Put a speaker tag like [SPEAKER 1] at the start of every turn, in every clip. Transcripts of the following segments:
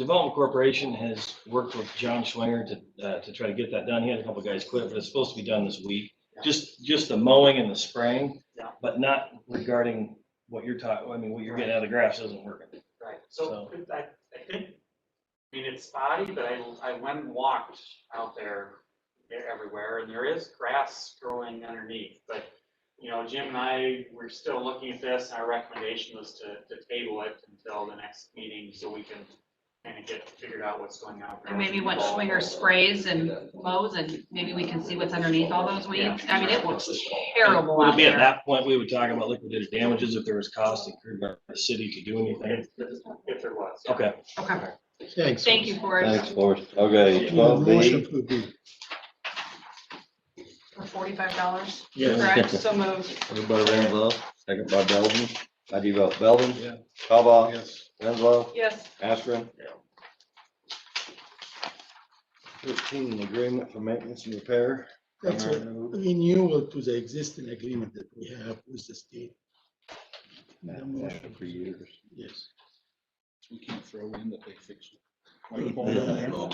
[SPEAKER 1] Development Corporation has worked with John Schwinger to, uh, to try to get that done. He had a couple guys quit, but it's supposed to be done this week.
[SPEAKER 2] Yeah.
[SPEAKER 1] Just, just the mowing and the spraying.
[SPEAKER 2] Yeah.
[SPEAKER 1] But not regarding what you're talking, I mean, what you're getting out of the grass isn't working.
[SPEAKER 2] Right, so I, I think, I mean, it's spotty, but I, I went and walked out there, they're everywhere, and there is grass growing underneath, but, you know, Jim and I, we're still looking at this, and our recommendation was to, to table it until the next meeting, so we can kind of get figured out what's going on.
[SPEAKER 3] And maybe what Schwinger sprays and mows and maybe we can see what's underneath all those weeds. I mean, it looks terrible
[SPEAKER 1] Would it
[SPEAKER 3] out
[SPEAKER 1] be at
[SPEAKER 3] there.
[SPEAKER 1] that point, we would talk about liquidated damages if there was cost incurred by the city to do anything.
[SPEAKER 2] If if there was. yeah.
[SPEAKER 1] Okay.
[SPEAKER 3] Okay,
[SPEAKER 4] Thanks.
[SPEAKER 3] thank you for it.
[SPEAKER 5] Thanks, Forrest. Okay, twelve
[SPEAKER 4] Motion
[SPEAKER 5] B,
[SPEAKER 4] for B.
[SPEAKER 3] For forty-five dollars,
[SPEAKER 5] Yes.
[SPEAKER 3] correct? So moved.
[SPEAKER 5] everybody Renzo, second by Belvin. How do you vote? Belvin?
[SPEAKER 1] Yeah.
[SPEAKER 5] Cobal?
[SPEAKER 4] Yes.
[SPEAKER 5] Renzo?
[SPEAKER 3] Yes.
[SPEAKER 5] Ashburn? Thirteen, agreement for maintenance and repair.
[SPEAKER 4] That's a renewal to the existing agreement that we have with the state. The motion.
[SPEAKER 5] For years.
[SPEAKER 4] Yes.
[SPEAKER 6] We can't throw in that they fixed
[SPEAKER 4] No.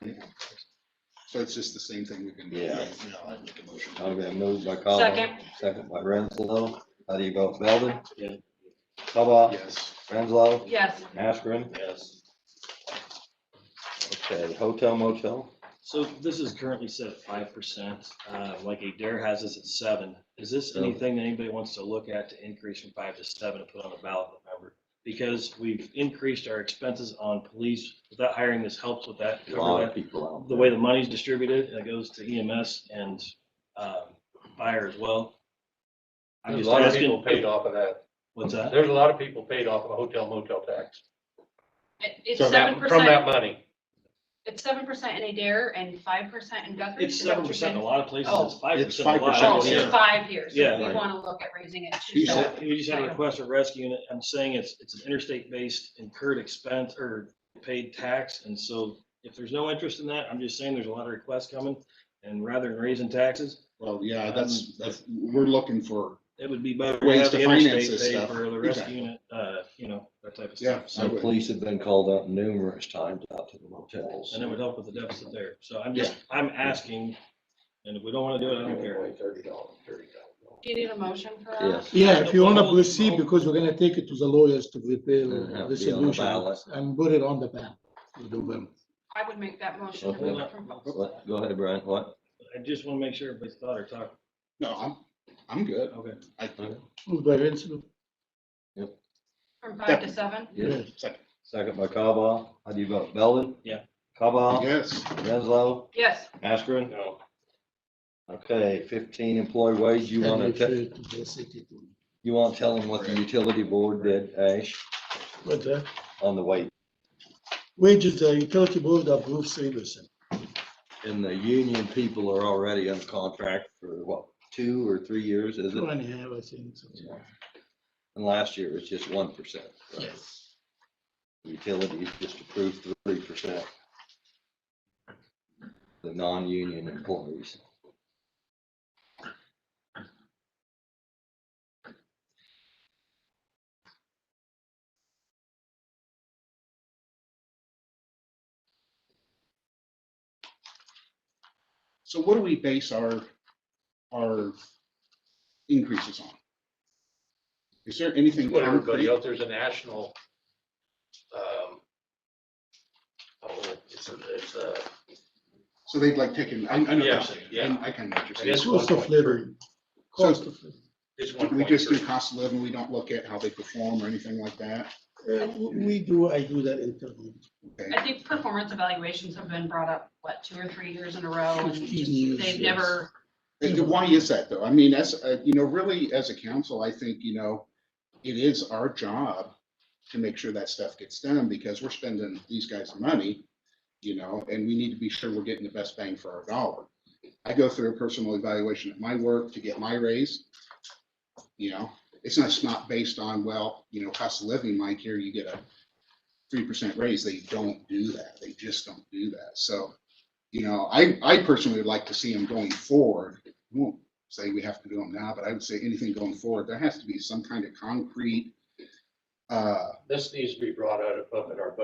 [SPEAKER 6] it. So it's just the same thing we've been.
[SPEAKER 5] Yeah.
[SPEAKER 6] I make a motion.
[SPEAKER 5] Okay, moved by Cobal.
[SPEAKER 3] Second.
[SPEAKER 5] Second by Renzo. How do you vote? Belvin?
[SPEAKER 1] Yeah.
[SPEAKER 5] Cobal?
[SPEAKER 6] Yes.
[SPEAKER 5] Renzo?
[SPEAKER 3] Yes.
[SPEAKER 5] Ashburn?
[SPEAKER 1] Yes.
[SPEAKER 5] Okay, hotel motel?
[SPEAKER 1] So this is currently set at five percent, uh, like Adair has us at seven. Is this
[SPEAKER 5] Yeah.
[SPEAKER 1] anything that anybody wants to look at to increase from five to seven and put on the ballot in November? Because we've increased our expenses on police, without hiring this helps with that,
[SPEAKER 5] A
[SPEAKER 1] cover
[SPEAKER 5] lot
[SPEAKER 1] that.
[SPEAKER 5] of people out.
[SPEAKER 1] The way the money's distributed, it goes to EMS and, um, fire as well. I'm
[SPEAKER 7] There's
[SPEAKER 1] just
[SPEAKER 7] a lot of
[SPEAKER 1] asking.
[SPEAKER 7] people paid off of that.
[SPEAKER 1] What's that?
[SPEAKER 7] There's a lot of people paid off of a hotel motel tax.
[SPEAKER 3] It- It's
[SPEAKER 7] From
[SPEAKER 3] seven
[SPEAKER 7] that, from that
[SPEAKER 3] percent,
[SPEAKER 7] money.
[SPEAKER 3] it's seven percent in Adair and five percent in Guthrie.
[SPEAKER 1] It's
[SPEAKER 3] Is that what
[SPEAKER 1] seven
[SPEAKER 3] you're
[SPEAKER 1] percent in a
[SPEAKER 3] saying?
[SPEAKER 1] lot of places,
[SPEAKER 3] Oh.
[SPEAKER 1] it's five
[SPEAKER 6] It's
[SPEAKER 1] percent a lot.
[SPEAKER 6] 5%
[SPEAKER 3] Oh,
[SPEAKER 6] Yeah.
[SPEAKER 3] it's five years. We
[SPEAKER 1] Yeah.
[SPEAKER 3] want to look at raising it. to
[SPEAKER 6] She
[SPEAKER 3] seven.
[SPEAKER 6] said-
[SPEAKER 1] So You just had a request for rescue unit. I'm saying it's, it's an interstate-based incurred expense or paid tax. And so if there's no interest in that, I'm just saying there's a lot of requests coming. And rather than raising taxes,
[SPEAKER 6] Well, yeah, that's, that's, we're looking for,
[SPEAKER 1] it would be better to
[SPEAKER 6] Ways
[SPEAKER 1] have
[SPEAKER 6] to
[SPEAKER 1] the
[SPEAKER 6] finance
[SPEAKER 1] interstate
[SPEAKER 6] this
[SPEAKER 1] pay
[SPEAKER 6] stuff.
[SPEAKER 1] for the rescue
[SPEAKER 6] Exactly.
[SPEAKER 1] unit, uh, you know, that type of
[SPEAKER 6] yeah.
[SPEAKER 1] stuff.
[SPEAKER 6] I
[SPEAKER 5] So
[SPEAKER 6] would.
[SPEAKER 5] police have been called out numerous times out to the motels.
[SPEAKER 1] And it would help with the deficit there. So I'm just, I'm asking, and if we don't want to do it, I don't care.
[SPEAKER 7] Thirty dollars, thirty dollars.
[SPEAKER 3] Do you need a motion for that?
[SPEAKER 5] Yes.
[SPEAKER 4] Yeah, if you want to proceed, because we're going to take it to the lawyers to
[SPEAKER 5] It'll
[SPEAKER 4] prepare
[SPEAKER 5] have
[SPEAKER 4] the
[SPEAKER 5] to be on the ballot.
[SPEAKER 4] solution and put it on the ballot. in November.
[SPEAKER 3] I would make that motion.
[SPEAKER 5] Okay. What? Go ahead, Brian. What?
[SPEAKER 1] I just want to make sure everybody's thought or talked.
[SPEAKER 6] No, I'm, I'm good.
[SPEAKER 1] Okay.
[SPEAKER 6] I,
[SPEAKER 4] Moved by Renzo.
[SPEAKER 3] From five to seven?
[SPEAKER 5] Yes.
[SPEAKER 6] Second.
[SPEAKER 5] Second by Cobal. How do you vote? Belvin?
[SPEAKER 1] Yeah.
[SPEAKER 5] Cobal?
[SPEAKER 6] yes,
[SPEAKER 5] Renzo?
[SPEAKER 3] Yes.
[SPEAKER 5] Askren?
[SPEAKER 7] No,
[SPEAKER 5] Okay, fifteen employee wage. You want to,
[SPEAKER 4] Refer to the city to-
[SPEAKER 5] you want to tell them what the utility board did, Ash,
[SPEAKER 4] What's that?
[SPEAKER 5] on the wage?
[SPEAKER 4] uh, Wages, the utility board approves three percent.
[SPEAKER 5] And the union people are already under contract for what, two or three years, is
[SPEAKER 4] Two
[SPEAKER 5] it?
[SPEAKER 4] and a half, I think. so.
[SPEAKER 5] Yeah. And last year it's just one percent.
[SPEAKER 4] Yes.
[SPEAKER 5] Utilities just approved three percent. The non-union employees.
[SPEAKER 6] so what do we base our, our increases on? Is there anything?
[SPEAKER 7] what everybody
[SPEAKER 6] concrete?
[SPEAKER 7] else, there's a national, um, oh, it's a, it's a,
[SPEAKER 6] So they've like taken, I, I know, what you're
[SPEAKER 7] Yeah,
[SPEAKER 6] saying.
[SPEAKER 7] yeah.
[SPEAKER 6] I I kind of know what you're
[SPEAKER 7] I
[SPEAKER 6] saying.
[SPEAKER 7] guess
[SPEAKER 4] Cost of living. Cost of living.
[SPEAKER 7] it's one
[SPEAKER 6] We
[SPEAKER 7] point
[SPEAKER 6] just do
[SPEAKER 7] three.
[SPEAKER 6] cost of living, we don't look at how they perform or anything like that.
[SPEAKER 4] Uh, w- We do, I do that internally.
[SPEAKER 6] Okay,
[SPEAKER 3] I think performance evaluations have been brought up, what, two or three years in a row? and
[SPEAKER 4] 15 years,
[SPEAKER 3] They've
[SPEAKER 4] yes.
[SPEAKER 3] never,
[SPEAKER 6] And why is that though? I mean, as, uh, you know, really as a council, I think, you know, it is our job to make sure that stuff gets done because we're spending these guys' money, you know, and we need to be sure we're getting the best bang for our dollar. I go through a personal evaluation at my work to get my raise. You know, it's not, it's not based on, well, you know, cost of living, Mike, here you get a three percent raise. They don't do that. They just don't do that. So, you know, I, I personally would like to see them going forward. I Won't say we have to do them now, but I would say anything going forward, there has to be some kind of concrete uh,
[SPEAKER 7] This needs to be brought out up at our budget